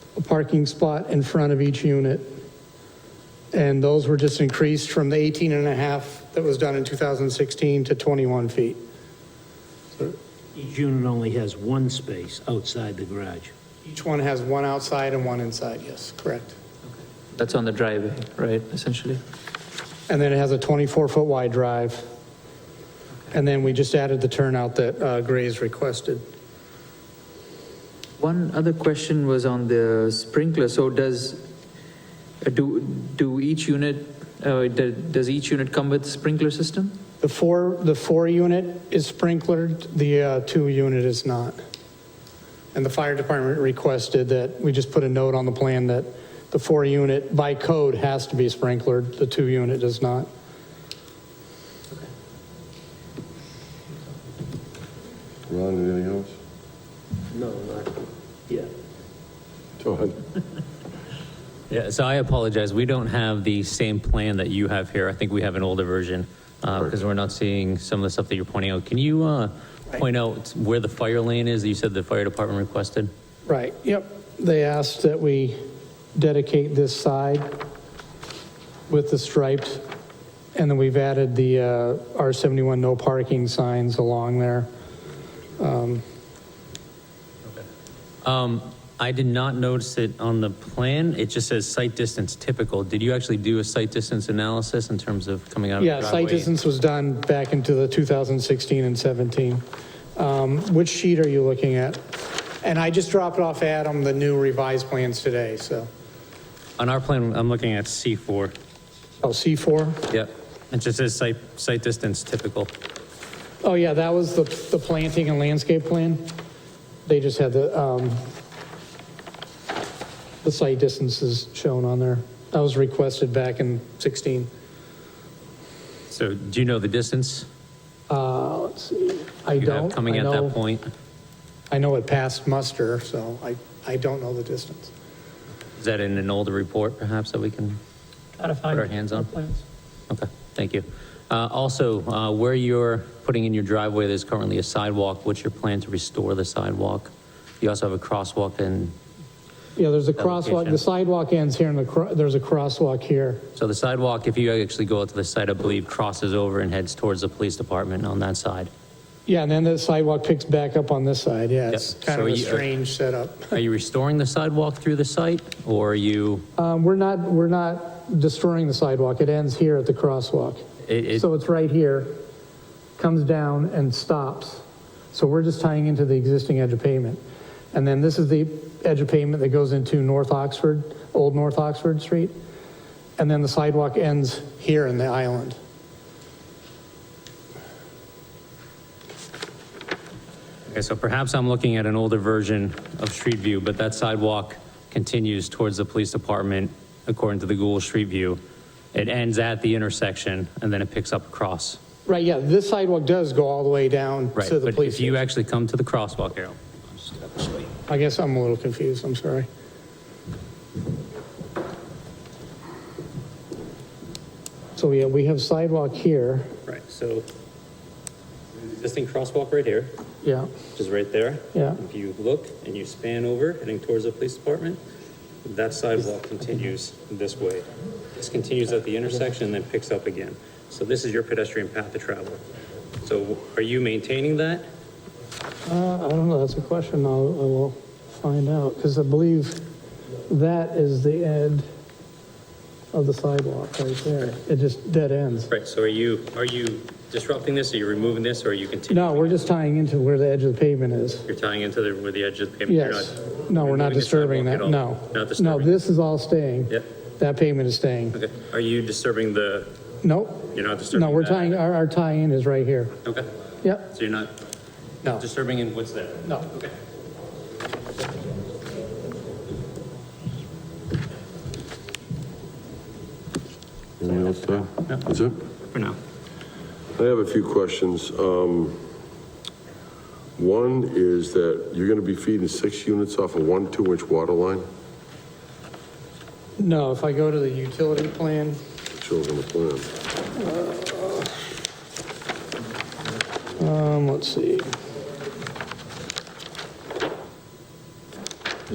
a parking spot in front of each unit. And those were just increased from the 18 and a half that was done in 2016 to 21 feet. Each unit only has one space outside the garage. Each one has one outside and one inside, yes, correct. That's on the driveway, right, essentially? And then it has a 24-foot wide drive. And then we just added the turnout that uh, Gray's requested. One other question was on the sprinkler. So does, uh, do, do each unit, uh, do- does each unit come with sprinkler system? The four, the four unit is sprinklered, the uh, two unit is not. And the fire department requested that we just put a note on the plan that the four unit by code has to be sprinklered, the two unit does not. Ron, anything else? No, not, yeah. Todd? Yeah, so I apologize. We don't have the same plan that you have here. I think we have an older version because we're not seeing some of the stuff that you're pointing out. Can you uh, point out where the fire lane is that you said the fire department requested? Right, yep. They asked that we dedicate this side with the stripes, and then we've added the uh, R71 no parking signs along there. Um, I did not notice it on the plan. It just says site distance typical. Did you actually do a site distance analysis in terms of coming out of the Yeah, driveway? site distance was done back into the 2016 and 17. Um, Which sheet are you looking at? And I just dropped off Adam the new revised plans today, so. On our plan, I'm looking at C4. Oh, C4? Yep. It just says site, site distance typical. Oh, yeah, that was the, the planting and landscape plan. They just had the, um, the site distances shown on there. That was requested back in 16. So do you know the distance Uh, let's see, I you don't. have coming I at know- that point? I know it passed muster, so I, I don't know the distance. Is that in an older report perhaps that we can put our hands on? Okay, thank you. Uh, Also, uh, where you're putting in your driveway, there's currently a sidewalk. What's your plan to restore the sidewalk? You also have a crosswalk and, Yeah, there's a That crosswalk, location. the sidewalk ends here and the, cro- there's a crosswalk here. so the sidewalk, if you actually go out to the site, I believe crosses over and heads towards the police department on that side. Yeah, and then the sidewalk picks back up on this side, yeah, it's Yep. kind So of a you- uh, strange setup. Are you restoring the sidewalk through the site or are you, Um, we're not, we're not destroying the sidewalk, it ends here at the crosswalk. It- it- So it's right here, comes down and stops. So we're just tying into the existing edge of pavement. And then this is the edge of pavement that goes into North Oxford, Old North Oxford Street. And then the sidewalk ends here in the island. okay, so perhaps I'm looking at an older version of Street View, but that sidewalk continues towards the police department according to the Google Street View. It ends at the intersection and then it picks up across. Right, yeah, this sidewalk does go all the way down Right, to the but police if you station. actually come to the crosswalk, Errol, I guess I'm a little confused, I'm sorry. So, yeah, we have sidewalk here, Right, so existing crosswalk right here, yeah, which is right there. Yeah. If you look and you span over heading towards the police department, that sidewalk continues this way. This continues at the intersection and then picks up again. So this is your pedestrian path to travel. So are you maintaining that? Uh, I don't know, that's a question I'll, I will find out, because I believe that is the end of the sidewalk right there. It just dead ends. Right, so are you, are you disrupting this? Are you removing this or are you continuing? No, we're just tying into where the edge of the pavement is. You're tying into the, where the edge of the pavement? You're Yes. not- No, we're not removing the disturbing that, sidewalk at all? no. Not No, disturbing? this is all staying. Yep. That pavement is staying. Okay, are you disturbing the, Nope, you're not disturbing no, we're that? tying, our, our tie-in is right here. Okay, Yep, so you're not no, disturbing in what's there? no. Anything else, Todd? That's it? For now. I have a few questions. Um, One is that you're going to be feeding six units off a one, two-inch water line? No, if I go to the utility plan, Shows on the plan. um, let's see.